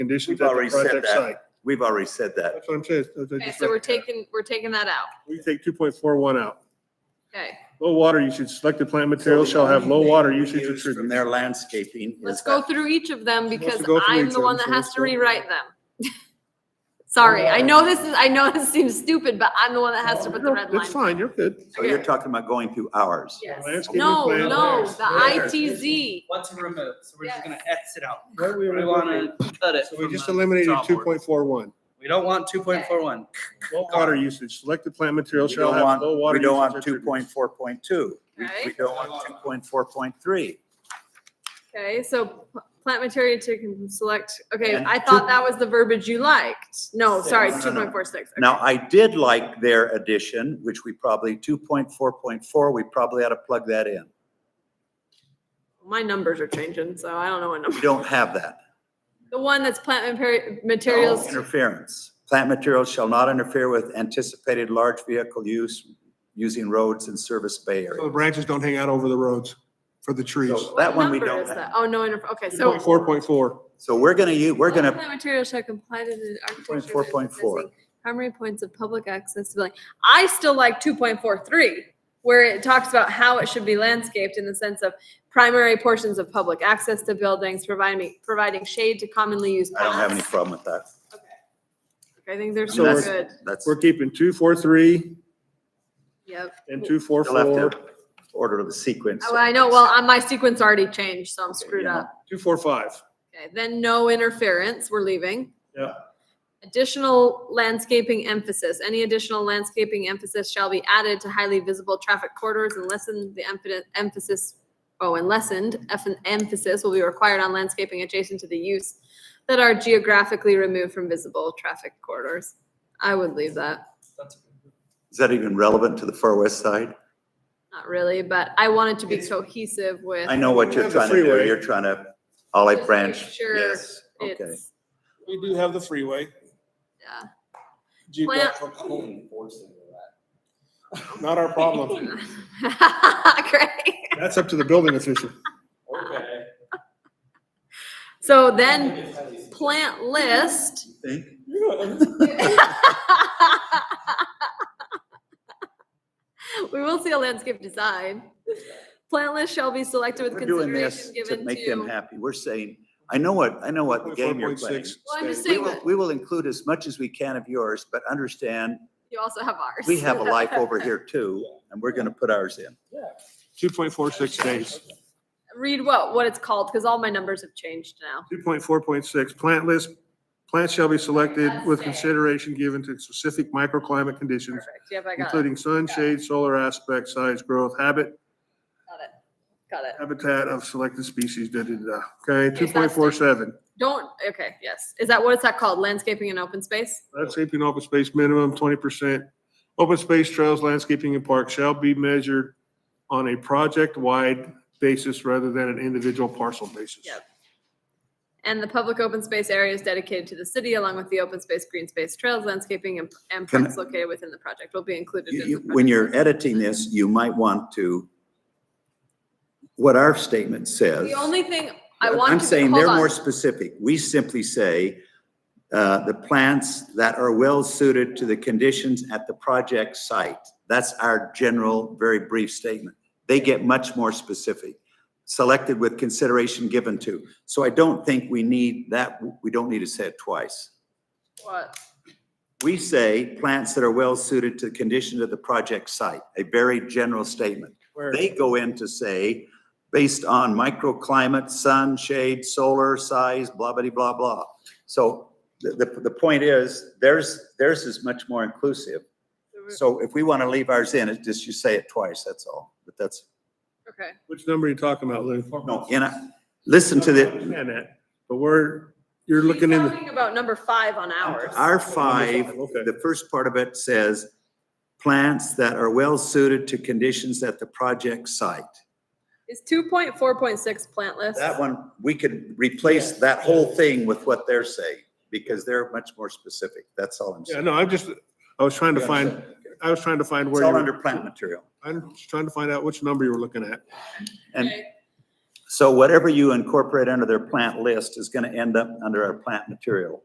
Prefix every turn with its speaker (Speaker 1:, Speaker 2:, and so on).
Speaker 1: conditions
Speaker 2: We've
Speaker 1: at
Speaker 2: already
Speaker 1: the
Speaker 2: said
Speaker 1: project
Speaker 2: that.
Speaker 1: site.
Speaker 2: We've already said that.
Speaker 1: That's what I'm saying. I just uh,
Speaker 3: Okay,
Speaker 1: read
Speaker 3: so we're
Speaker 1: it.
Speaker 3: taking, we're taking that out.
Speaker 1: We take two point four one out.
Speaker 3: Okay,
Speaker 1: Low water usage, selected plant materials shall have low water usage
Speaker 2: Used From
Speaker 1: attributes.
Speaker 2: their landscaping. is
Speaker 3: let's go
Speaker 2: that-
Speaker 3: through each of them
Speaker 1: Let's
Speaker 3: because
Speaker 1: go through Oh,
Speaker 3: I'm
Speaker 1: each
Speaker 3: the
Speaker 1: of
Speaker 3: one
Speaker 1: them,
Speaker 3: that
Speaker 1: so
Speaker 3: has
Speaker 1: let's
Speaker 3: to
Speaker 1: go-
Speaker 3: rewrite them. Sorry, I know this is, I know this seems stupid, but I'm the one that has to put the red
Speaker 1: Oh, It's
Speaker 3: line.
Speaker 1: fine, you're good.
Speaker 2: So you're talking about going through ours.
Speaker 3: Yes.
Speaker 1: Landscaping
Speaker 3: No,
Speaker 1: plan.
Speaker 3: no, the
Speaker 1: There.
Speaker 3: ITZ.
Speaker 4: What to remove, so we're just gonna X it out.
Speaker 1: Right, we
Speaker 4: We
Speaker 1: were-
Speaker 4: wanna cut it.
Speaker 1: So we
Speaker 4: from
Speaker 1: just
Speaker 4: the
Speaker 1: eliminated
Speaker 4: job
Speaker 1: two
Speaker 4: order.
Speaker 1: point four one.
Speaker 4: We don't want two point four one.
Speaker 1: Low water usage, selected plant materials
Speaker 2: We
Speaker 1: shall
Speaker 2: don't
Speaker 1: have low
Speaker 2: want,
Speaker 1: water.
Speaker 2: we don't want
Speaker 1: usage
Speaker 2: two point four point two. We
Speaker 3: Right,
Speaker 2: don't want two point four point three.
Speaker 3: okay, so p- plant material to con- select, okay,
Speaker 2: And
Speaker 3: I
Speaker 2: two-
Speaker 3: thought that was the verbiage you liked. No, sorry,
Speaker 2: No, no,
Speaker 3: two
Speaker 2: no.
Speaker 3: point four six.
Speaker 2: Now, I did like their addition, which we probably, two point four point four, we probably ought to plug that in.
Speaker 3: My numbers are changing, so I don't know what number.
Speaker 2: We don't have that.
Speaker 3: The one that's plant
Speaker 1: Oh,
Speaker 3: mapari- materials,
Speaker 2: Interference. Plant materials shall not interfere with anticipated large vehicle use using roads and service bay
Speaker 1: So the
Speaker 2: area.
Speaker 1: branches don't hang out over the roads for the trees.
Speaker 2: So That one we
Speaker 3: number
Speaker 2: don't
Speaker 3: is that?
Speaker 2: have.
Speaker 3: Oh, no, interf- okay, so.
Speaker 1: Four point four.
Speaker 2: So we're gonna, u- we're
Speaker 3: All
Speaker 2: gonna,
Speaker 3: Plant materials shall comply to the architecture.
Speaker 2: 4.4.
Speaker 3: and design Primary points of public access to building. I still like two point four three, where it talks about how it should be landscaped in the sense of primary portions of public access to buildings, providing, providing shade to commonly used
Speaker 2: I don't have any
Speaker 3: paths.
Speaker 2: problem with that.
Speaker 3: Okay, I think they're
Speaker 2: I mean,
Speaker 3: so
Speaker 2: that's-
Speaker 3: good.
Speaker 2: That's
Speaker 1: We're keeping two, four, three
Speaker 3: Yep.
Speaker 1: and two, four,
Speaker 2: still have
Speaker 1: four,
Speaker 2: to order of the sequence.
Speaker 3: Oh, I know, well, uh, my sequence already changed, so I'm screwed
Speaker 2: Yeah.
Speaker 3: up.
Speaker 1: two, four, five.
Speaker 3: Okay, then no interference, we're leaving.
Speaker 1: Yeah.
Speaker 3: Additional landscaping emphasis, any additional landscaping emphasis shall be added to highly visible traffic corridors and lessen the emphasis- emphasis, oh, and lessened eff- emphasis will be required on landscaping adjacent to the use that are geographically removed from visible traffic corridors. I would leave that,
Speaker 4: That's-
Speaker 2: Is that even relevant to the Far West Side?
Speaker 3: not really, but I want it to be cohesive with.
Speaker 2: I know what
Speaker 1: We
Speaker 2: you're
Speaker 1: have the
Speaker 2: trying to do.
Speaker 1: freeway.
Speaker 2: You're trying to
Speaker 3: Just
Speaker 2: olive
Speaker 3: make
Speaker 2: branch.
Speaker 3: sure
Speaker 2: Yes, okay.
Speaker 3: It's,
Speaker 1: We do have the freeway.
Speaker 3: yeah.
Speaker 1: Not our problem.
Speaker 3: Great.
Speaker 1: That's up to the building official.
Speaker 3: So then, plant list.
Speaker 2: Think?
Speaker 3: We will see a landscape design. Plant list shall be selected with
Speaker 2: We're doing this
Speaker 3: consideration
Speaker 2: to
Speaker 3: given
Speaker 2: make them
Speaker 3: to.
Speaker 2: happy. We're saying, I know what, I know what game you're playing.
Speaker 1: 4.6
Speaker 3: Well, I'm just
Speaker 1: stays.
Speaker 2: We
Speaker 3: saying
Speaker 2: will,
Speaker 3: that
Speaker 2: we will include as much as we can of yours, but understand,
Speaker 3: you also have ours.
Speaker 2: we have a life over here too, and we're gonna put ours in.
Speaker 1: Two point four six days.
Speaker 3: Read what, what it's called, because all my numbers have changed now.
Speaker 1: Two point four point six, plant list. Plants shall be selected
Speaker 3: That's
Speaker 1: with
Speaker 3: it.
Speaker 1: consideration given to specific microclimate conditions,
Speaker 3: Perfect. Yep, I got it.
Speaker 1: including sun,
Speaker 3: Got it.
Speaker 1: shade, solar aspect, size, growth, habit,
Speaker 3: Got it. Got it.
Speaker 1: habitat of selected species, da, da, da. Okay, two point
Speaker 3: Okay, that's
Speaker 1: four seven.
Speaker 3: Don't, okay, yes. Is that, what is that called? Landscaping and open space?
Speaker 1: Landscaping open space minimum twenty percent. Open space trails, landscaping and parks shall be measured on a project-wide basis rather than an individual parcel basis.
Speaker 3: Yep. And the public open space area is dedicated to the city along with the open space, green space, trails, landscaping and- and
Speaker 2: Can I-
Speaker 3: parks located within the project will be included.
Speaker 2: You-
Speaker 3: in
Speaker 2: you-
Speaker 3: the
Speaker 2: When
Speaker 3: project
Speaker 2: you're
Speaker 3: list.
Speaker 2: editing this, you might want to, what our statement says.
Speaker 3: The only thing I
Speaker 2: But
Speaker 3: want to.
Speaker 2: I'm
Speaker 3: be-
Speaker 2: saying
Speaker 3: hold
Speaker 2: they're
Speaker 3: on.
Speaker 2: more specific. We simply say, uh, the plants that are well suited to the conditions at the project site. That's our general, very brief statement. They get much more specific, selected with consideration given to. So I don't think we need that, we don't need to say it twice.
Speaker 3: What?
Speaker 2: We say plants that are well suited to the condition of the project site, a very general statement. They go in to say, based on microclimate, sun, shade, solar size, blah, blah, blah, blah. So the, the, the point is, theirs, theirs is much more inclusive. So if we want to leave ours in, it's just you say it twice, that's all. But that's,
Speaker 3: Okay,
Speaker 1: Which number are you talking about, Lou?
Speaker 2: no, and I, listen to
Speaker 1: I
Speaker 2: the,
Speaker 1: understand that, but we're, you're looking
Speaker 3: He's
Speaker 1: in, the-
Speaker 3: Talking about number five on ours.
Speaker 2: Our five,
Speaker 1: Okay.
Speaker 2: the first part of it says, plants that are well suited to conditions at the project site.
Speaker 3: Is two point four point six plant list?
Speaker 2: That one, we could replace that whole thing with what they're saying, because they're much more specific. That's all I'm
Speaker 1: yeah,
Speaker 2: saying.
Speaker 1: no, I'm just, I was trying to find, I was trying to find
Speaker 2: It's
Speaker 1: where you
Speaker 2: all
Speaker 1: were,
Speaker 2: under plant material.
Speaker 1: I'm just trying to find out which number you were looking at.
Speaker 2: And
Speaker 3: Okay.
Speaker 2: So whatever you incorporate under their plant list is gonna end up under our plant material.